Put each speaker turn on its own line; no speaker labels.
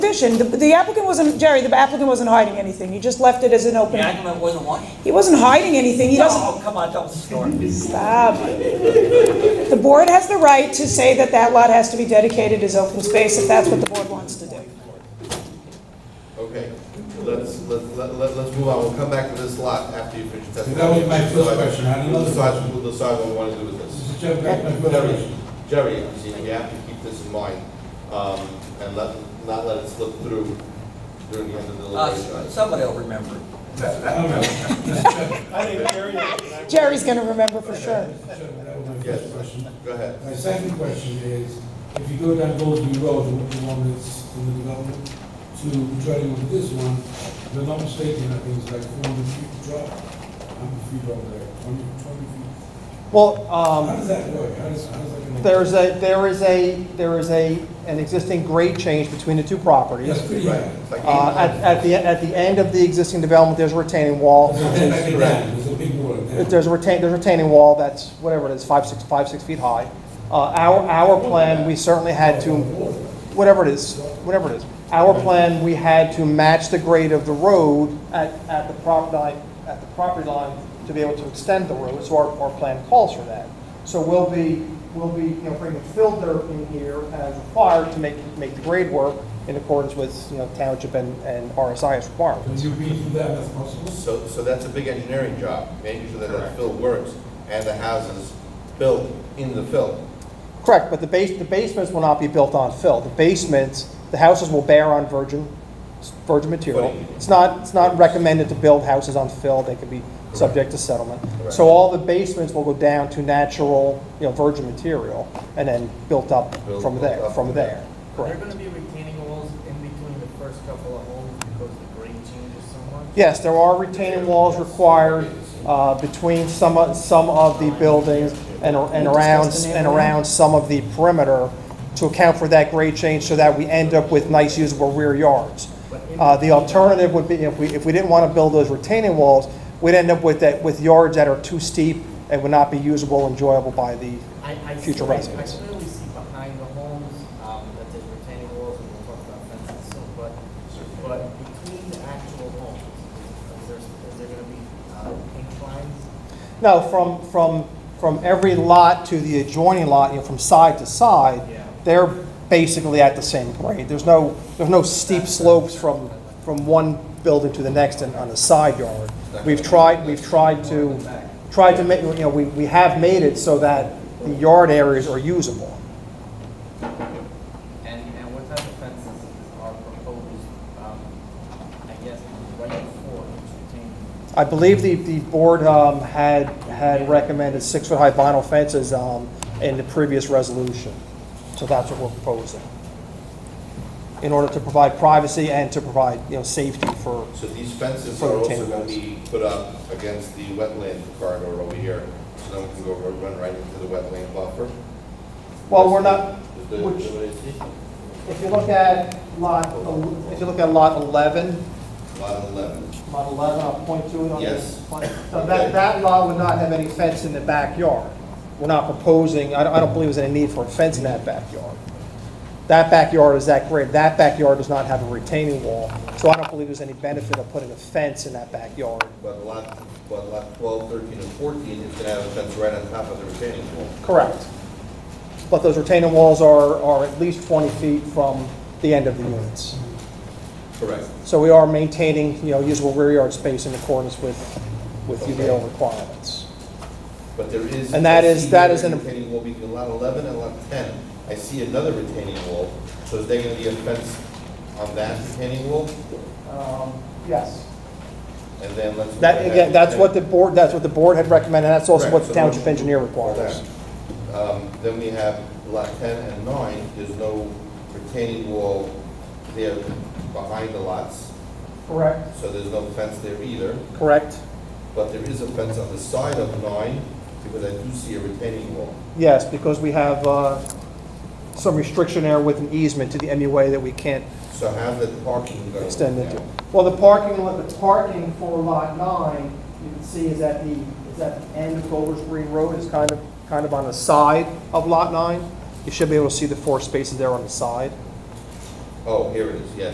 position. The- The applicant wasn't, Jerry, the applicant wasn't hiding anything. He just left it as an open.
The argument wasn't one?
He wasn't hiding anything. He doesn't.
Oh, come on, don't snort.
Stop. The board has the right to say that that lot has to be dedicated as open space if that's what the board wants to do.
Okay, let's, let's, let- let- let's move on, we'll come back to this lot after you finish testifying.
That was my first question. I don't know.
We'll decide, we'll decide what we want to do with this.
Mr. Chair, back my
Jerry,
question.
Jerry, you see, you have to keep this in mind, um, and let, not let it slip through during the end of the
Uh,
deliberation.
somebody will remember.
All right. Mr. Chairman,
Jerry's going to remember for sure.
Mr. Chairman, that was my
Yes.
first question.
Go ahead.
My second question is, if you go down Goldsby Road, the one- the one that's in the development, to joining with this one, if I'm not mistaken, I think it's like four hundred feet drop, how many feet over there, twenty, twenty feet?
Well,
How
um,
does that work? How does, how does that connect?
there's a, there is a, there is a, an existing grade change between the two properties.
That's pretty
Right,
high.
it's like eight
Uh, At,
hundred.
at the, at the end of the existing development, there's a retaining wall.
There's a big- There's a big wall
If
there.
There's a retain, there's a retaining wall that's, whatever it is, five, six, five, six feet high. Uh, Our, our plan, we certainly had to, whatever it is, whatever it is. Our plan, we had to match the grade of the road at, at the property line, at the property line to be able to extend the road, so our, our plan calls for that. So we'll be, we'll be, you know, bringing fill dirt in here as required to make, make the grade work in accordance with, you know, township and, and RSI's
Can
requirements.
you redo that as possible?
So, so that's a big engineering job, making sure that that fill works and the houses built in the fill.
Correct, but the base, the basements will not be built on fill. The basements, the houses will bear on virgin, virgin material.
Footing.
It's not, it's not recommended to build houses on fill, they could be subject to settlement. So all the basements will go down to natural, you know, virgin material, and then built up
Built-
from
built
there,
up
from
from there.
there,
Are there
correct.
gonna be retaining walls in between the first couple of homes because the grade changes so much?
Yes, there are retaining walls required uh, between some, of- some of the buildings and ar- and
We
around,
discussed the
and
neighborhood.
around some of the perimeter to account for that grade change so that we end up with nice usable rear yards. Uh, The alternative would be, if we, if we didn't want to build those retaining walls, we'd end up with that, with yards that are too steep and would not be usable, enjoyable by the
I, I.
Future
see- I-
residents.
I clearly see behind the homes, um, that there's retaining walls, and we'll talk about fences soon, but, but between the actual homes, is there, is there gonna be, uh, inclines?
No, from, from, from every lot to the adjoining lot, you know, from side to side,
Yeah.
they're basically at the same grade. There's no, there's no steep slopes from, from one building to the next and on the side yard. We've tried, we've tried to, tried to make, you know, we, we have made it so that the yard areas are usable.
And, and what type of fences are proposed, um, I guess, right before each retaining?
I believe the, the board um, had, had recommended six-foot-high vinyl fences um, in the previous resolution. So that's what we're proposing. In order to provide privacy and to provide, you know, safety for,
So these fences
For
are also
retaining
going to
walls.
be put up against the wetland corridor over here, so no one can go ru- run right into the wetland buffer?
well, we're not,
Is the-
which-
what is it?
if you look at lot, el- if you look at lot 11,
Lot eleven.
lot 11, I'll point to it on
Yes.
this plan. So that, that lot would not have any fence in the backyard. We're not proposing, I don't, I don't believe there's any need for a fence in that backyard. That backyard is that great, that backyard does not have a retaining wall, so I don't believe there's any benefit of putting a fence in that backyard.
But lot, but lot 12, 13, and fourteen is going to have a fence right on top of the retaining wall.
Correct. But those retaining walls are, are at least 20 feet from the end of the units.
Correct.
So we are maintaining, you know, usable rear yard space in accordance with, with UDO requirements.
But there is.
And that
I
is-
see
that
a
is an-
Retaining wall between lot eleven and lot ten. I see another retaining wall, so is there going to be a fence on that retaining wall?
Yes.
And then let's. look
That,
at
again, that's what the
retaining-
board, that's what the board had recommended, and that's also
Correct,
what
so
the township
we'll-
engineer
All
requires.
that. Um, Then we have lot 10 and 9, there's no retaining wall there behind the lots,
Correct.
so there's no fence there either.
Correct,
But there is a fence on the side of 9, because I do see a retaining wall.
yes, because we have, uh, some restriction there with an easement to the MUA that we can't
So how's that parking going?
extend
down?
into. Well, the parking, lot- the parking for lot nine, you can see is at the, is at the end of Golders Green Road, is kind of, kind of on the side of lot nine. You should be able to see the four spaces there on the side.
Oh, here it is, yes.